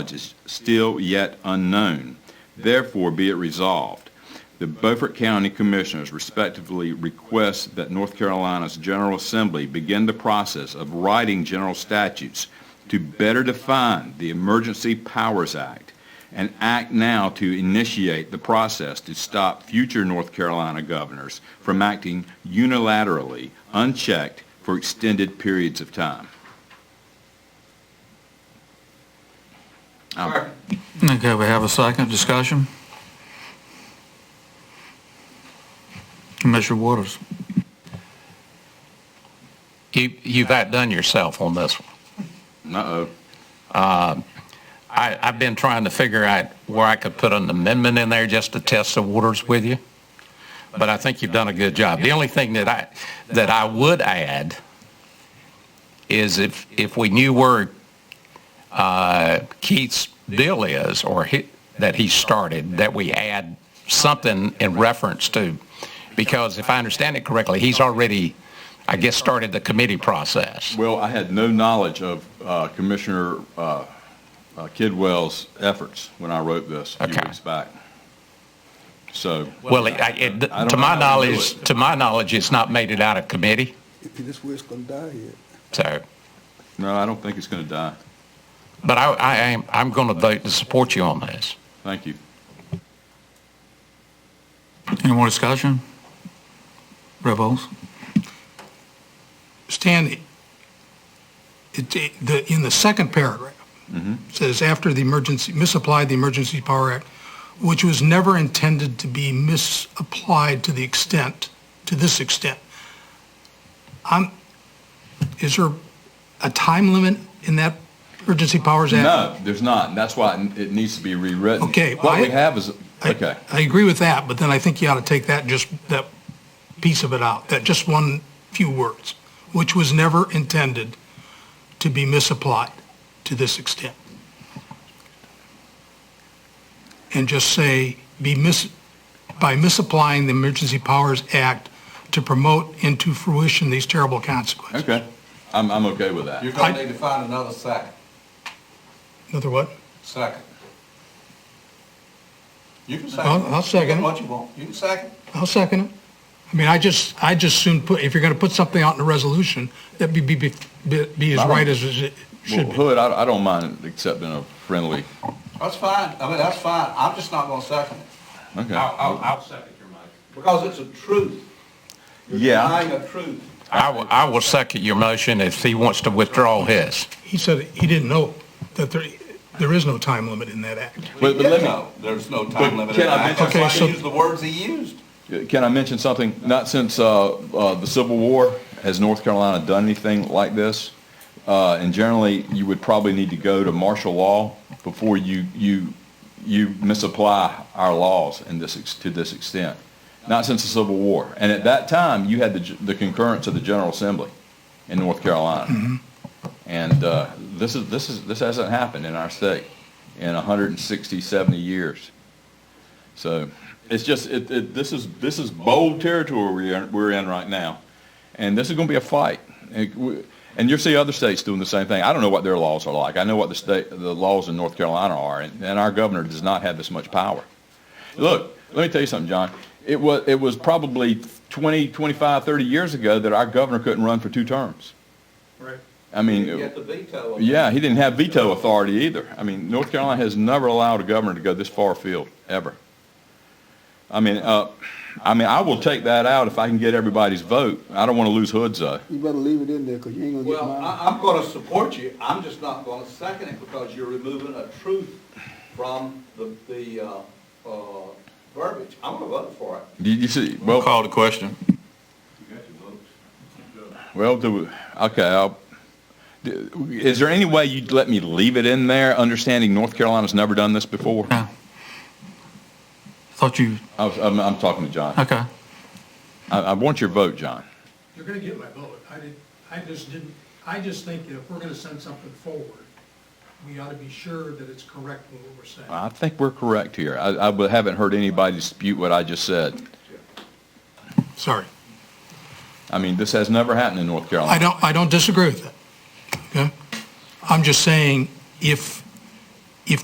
is still yet unknown. Therefore, be it resolved, the Beaufort County Commissioners respectively request that North Carolina's General Assembly begin the process of writing general statutes to better define the Emergency Powers Act and act now to initiate the process to stop future North Carolina governors from acting unilaterally, unchecked, for extended periods of time. Um, Okay, we have a second discussion. Commissioner Waters. You, you've outdone yourself on this one. Uh, Uh-oh. I, I've been trying to figure out where I could put an amendment in there just to test the waters with you, but I think you've done a good job. The only thing that I, that I would add is if, if we knew where uh, Keith's deal is, or he, that he started, that we add something in reference to, because if I understand it correctly, he's already, I guess, started the committee process. Well, I had no knowledge of uh, Commissioner uh, uh, Kidwell's efforts when I wrote this a few Okay. weeks back. So. Well, it- I- it- I don't to know my how to do knowledge, it. to my knowledge, it's not made it out of committee, This wheel's gonna die here. so, No, I don't think it's going to die. but I, I am, I'm going to vote to support you on this. Thank you. Any more discussion? Rebels? Stan, it- it, the, in the second paragraph, says after the emergency, misapplied the Emergency Power Act, which was never intended to be misapplied to the extent, to this extent. I'm, is there a time limit in that Emergency Powers Act? No, there's not. and That's why it it needs to be rewritten. Okay, What I- we have is, I- okay. I agree with that, but then I think you ought to take that, just that piece of it out, that just one few words, which was never intended to be misapplied to this extent. And just say, be mis, by misapplying the Emergency Powers Act to promote into fruition these terrible consequences. Okay. I'm, I'm okay with that. You're gonna need to find another second, Another what? second. You can second. I'll- I'll second it. What you want, you can second. I'll second it. I mean, I just, I just soon put, if you're going to put something out in a resolution, that be, be, be, be as right as it Well, should be. Hood, I, I don't mind accepting a friendly, That's fine, I mean, that's fine, I'm just not gonna second it. okay. I'll second your motion. Because it's a truth. Yeah, Denying a truth. I will, I will second your motion if he wants to withdraw his. He said he didn't know that there, there is no time limit in that act. but, but let me, No, There's no time limit. can I That's mention why something? he used the words he used. Can I mention something? Not since uh, uh, the Civil War has North Carolina done anything like this. Uh, and generally, you would probably need to go to martial law before you you you misapply our laws in this ex- to this extent. Not since the Civil War, and at that time, you had the, g- the concurrence of the General Assembly in North Carolina, and uh, this is this is this hasn't happened in our state in 160, 70 years. So it's just, it, it, this is, this is bold territory we're, in- we're in right now. And this is going to be a fight. And we- and you'll see other states doing the same thing. I don't know what their laws are like. I know what the state, the laws in North Carolina are, and, and our governor does not have this much power. Look, let me tell you something, John. It was, it was probably 20, 25, 30 years ago that our governor couldn't run for two terms. Right. I mean, You get the veto. of it. yeah, he didn't have veto authority either. I mean, North Carolina has never allowed a governor to go this far afield, ever. I mean, uh, I mean, I will take that out if I can get everybody's vote. I don't want to lose Hood's though. You better leave it in there, cause you ain't gonna get Well, mine. I, I'm gonna support you, I'm just not gonna second it because you're removing a truth from the, the, uh, uh, verbiage. I'm gonna vote for it. You, you see, well, the question. well, do, okay, I'll, is there any way you'd let me leave it in there, understanding North Carolina's never done this before? No. Thought you, I was, I'm, I'm talking to John. okay. I, I want your vote, John. You're gonna get my vote. I did, I just didn't, I just think that if we're gonna send something forward, we ought to be sure that it's correct in what we're saying. I think we're correct here. I, I haven't heard anybody dispute what I just said. Sorry. I mean, this has never happened in North Carolina. I don't, I don't disagree with that. Okay? I'm just saying, if